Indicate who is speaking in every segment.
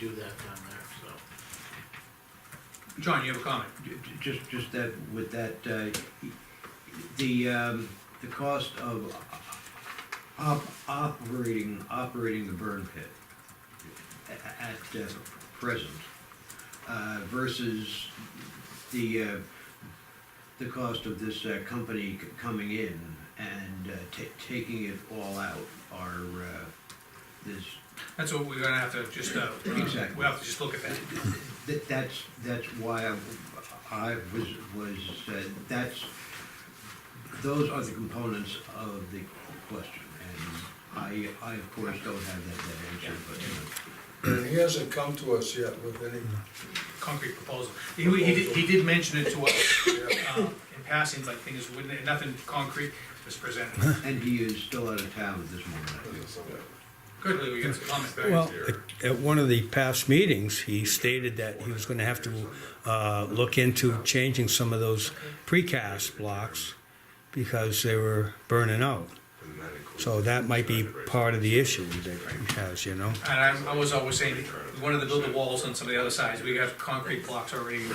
Speaker 1: do that down there, so.
Speaker 2: John, you have a comment?
Speaker 3: Ju- ju- Just, just that, with that, uh, the, um, the cost of op- operating, operating the burn pit a- a- at uh, present uh, versus the, uh, the cost of this uh, company c- coming in and uh, ta- taking it all out are, uh, this,
Speaker 2: That's what we're gonna have to just, uh,
Speaker 3: Exactly.
Speaker 2: we'll have to just look at that.
Speaker 3: That, that's, that's why I, I was, was, uh, that's, those are the components of the question. And I, I of course don't have that, that answer, but, you
Speaker 4: And he hasn't come to us yet with any,
Speaker 2: Concrete proposal. He, he did, he did mention it to us,
Speaker 4: yeah,
Speaker 2: uh, in passing, like things, wouldn't, nothing concrete was presented.
Speaker 3: know. and he is still out of town at this moment, I feel.
Speaker 2: Good, Lee, we got some comments back.
Speaker 5: Well, at- at one of the past meetings, he stated that he was gonna have to, uh, look into changing some of those precast blocks because they were burning out. So that might be part of the issue that he has, you know?
Speaker 2: And I, I was always saying, we wanted to build the walls on some of the other sides, we have concrete blocks already in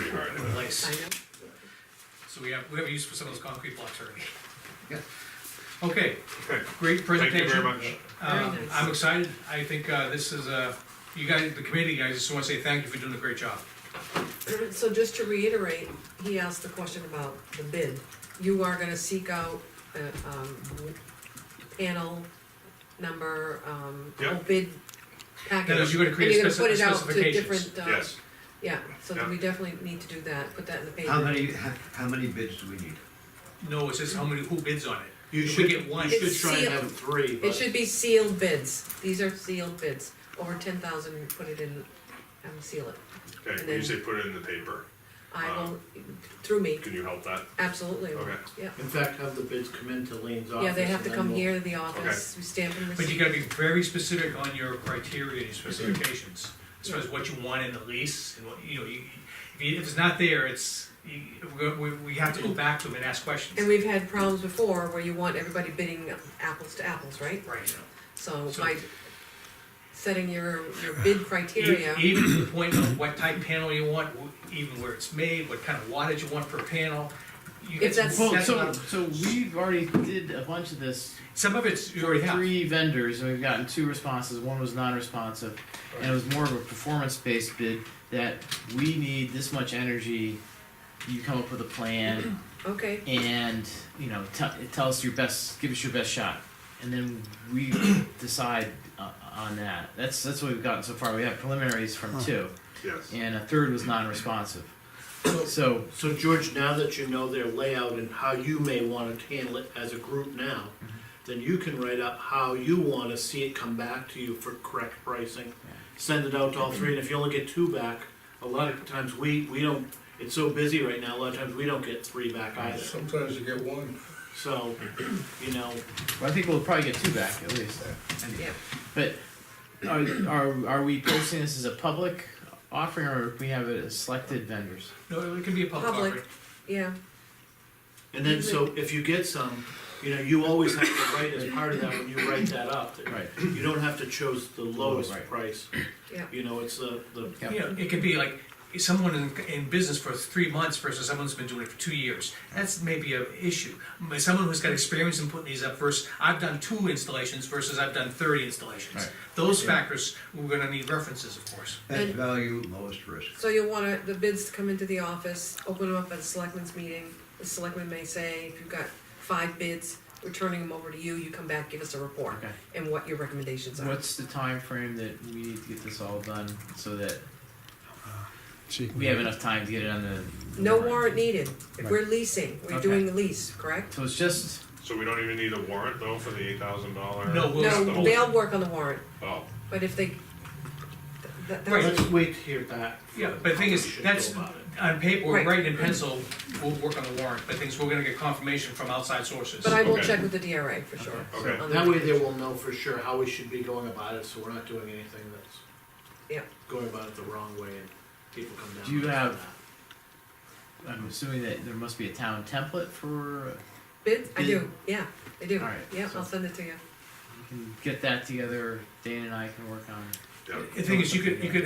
Speaker 2: place.
Speaker 6: I know.
Speaker 2: So we have, we have use for some of those concrete blocks already.
Speaker 3: Yeah.
Speaker 2: Okay, great
Speaker 7: Thank you
Speaker 2: presentation.
Speaker 7: very much.
Speaker 2: Um,
Speaker 6: Very nice.
Speaker 2: I'm excited, I think, uh, this is, uh, you guys, the committee, I just wanna say thank you for doing a great job.
Speaker 6: So just to reiterate, he asked the question about the bid. You are gonna seek out, uh, um, panel number, um,
Speaker 7: Yeah.
Speaker 6: bid package.
Speaker 2: you're gonna create
Speaker 6: and
Speaker 2: speci-
Speaker 6: put it out to
Speaker 2: specifications.
Speaker 6: different, uh,
Speaker 7: Yes,
Speaker 6: yeah, so that we definitely need to do that, put that in the paper.
Speaker 3: How many, how, how many bids do we need?
Speaker 2: No, it says how many, who bids on it.
Speaker 1: You
Speaker 2: If we
Speaker 1: should,
Speaker 2: get one-
Speaker 1: you should
Speaker 6: It's
Speaker 1: try and
Speaker 6: sealed.
Speaker 1: have three,
Speaker 6: It
Speaker 1: but
Speaker 6: should be sealed bids, these are sealed bids, over ten thousand, put it in, um, seal it. And
Speaker 7: okay,
Speaker 6: then-
Speaker 7: you say put it in the paper,
Speaker 6: I will, through me,
Speaker 7: can you help that?
Speaker 6: absolutely,
Speaker 7: Okay.
Speaker 6: yeah.
Speaker 1: in fact, have the bids come into Lean's office.
Speaker 6: Yeah, they have to
Speaker 1: and then
Speaker 6: come
Speaker 1: we'll-
Speaker 6: here to the office, we stamp and
Speaker 2: But you
Speaker 6: receive.
Speaker 2: gotta be very specific on your criteria and specifications, as far as what you want in the lease, and what, you know, you, if you- if it's not there, it's, you, we- we, we have to go back to them and ask
Speaker 6: And
Speaker 2: questions.
Speaker 6: we've had problems before where you want everybody bidding apples to apples, right?
Speaker 2: Right.
Speaker 6: So
Speaker 2: So-
Speaker 6: by setting your, your bid criteria,
Speaker 2: E- Even to the point of what type panel you want, wh- even where it's made, what kind of wattage you want per panel. you get
Speaker 6: If
Speaker 2: some-
Speaker 6: that's-
Speaker 1: Well,
Speaker 2: that's
Speaker 1: so,
Speaker 2: not-
Speaker 1: so we've already did a bunch of this
Speaker 2: Some of it's you
Speaker 1: for
Speaker 2: already have,
Speaker 1: three vendors, and we've gotten two responses, one was non-responsive. And it was more of a performance-based bid, that we need this much energy, you come up with a plan,
Speaker 6: okay,
Speaker 1: and, you know, tell, tell us your best, give us your best shot. And then we decide uh, on that, that's, that's what we've gotten so far, we have preliminaries from two,
Speaker 7: Yes,
Speaker 1: and a third was non-responsive. So,
Speaker 8: So George, now that you know their layout and how you may wanna handle it as a group now,
Speaker 1: Mm-hmm.
Speaker 8: then you can write up how you wanna see it come back to you for correct pricing. Send it out to all three, and if you only get two back, a lot of times we, we don't, it's so busy right now, a lot of times we don't get three back either.
Speaker 4: sometimes you get one.
Speaker 8: So, you know,
Speaker 1: well, I think we'll probably get two back at least.
Speaker 6: yeah.
Speaker 1: But are, are, are we posting this as a public offering, or we have it as selected vendors?
Speaker 2: no, it can be a public
Speaker 6: Public.
Speaker 2: offering.
Speaker 6: yeah,
Speaker 8: and then, so if you get some, you know, you always have to write as part of that, when you write that up, that
Speaker 1: Right.
Speaker 8: you don't have to choose the lowest
Speaker 1: Right.
Speaker 8: price.
Speaker 6: Yeah.
Speaker 8: You know, it's the, the
Speaker 1: Yeah.
Speaker 2: You know, it could be like someone in, in business for three months versus someone who's been doing it for two years. That's maybe an issue. But Someone who's got experience in putting these up versus, I've done two installations versus I've done thirty installations.
Speaker 1: Right.
Speaker 2: Those factors, we're gonna need references, of course.
Speaker 3: Best
Speaker 6: And-
Speaker 3: value, lowest risk.
Speaker 6: so you'll wanna, the bids to come into the office, open them up at a selectmen's meeting. The selectmen may say, if you've got five bids, we're turning them over to you, you come back, give us a report
Speaker 1: Okay.
Speaker 6: and what your recommendations are.
Speaker 1: What's the time frame that we need to get this all done so that
Speaker 5: See,
Speaker 1: we have enough time to get it on the?
Speaker 6: No warrant needed, if we're leasing, we're
Speaker 1: Okay.
Speaker 6: doing the lease, correct?
Speaker 1: So it's just,
Speaker 7: so we don't even need a warrant though for the eight thousand dollar?
Speaker 2: No, we'll-
Speaker 6: No, they'll work on the warrant,
Speaker 7: Oh,
Speaker 6: but if they, that,
Speaker 2: Right.
Speaker 6: that's
Speaker 8: Let's wait to hear back. from
Speaker 2: Yeah, but the thing
Speaker 8: how
Speaker 2: is,
Speaker 8: we should
Speaker 2: that's
Speaker 8: go about it.
Speaker 2: on paper,
Speaker 6: Right.
Speaker 2: writing in pencil, we'll work on the warrant, but things, we're gonna get confirmation from outside sources.
Speaker 6: But I will
Speaker 7: Okay.
Speaker 6: check with the DRA for sure.
Speaker 7: Okay.
Speaker 6: On
Speaker 8: That way they will know for sure how we should be going about it, so we're not doing anything that's.
Speaker 6: Yeah.
Speaker 8: Going about it the wrong way and people come down.
Speaker 1: Do you
Speaker 8: on us for
Speaker 1: have-
Speaker 8: that.
Speaker 1: I'm assuming that there must be a town template for,
Speaker 6: Bid, I do,
Speaker 1: Bid.
Speaker 6: yeah, I do.
Speaker 1: Alright,
Speaker 6: Yeah,
Speaker 1: so-
Speaker 6: I'll send it to you.
Speaker 1: we can get that together, Dana and I can work on.
Speaker 7: yeah.
Speaker 2: The thing is, you could, you could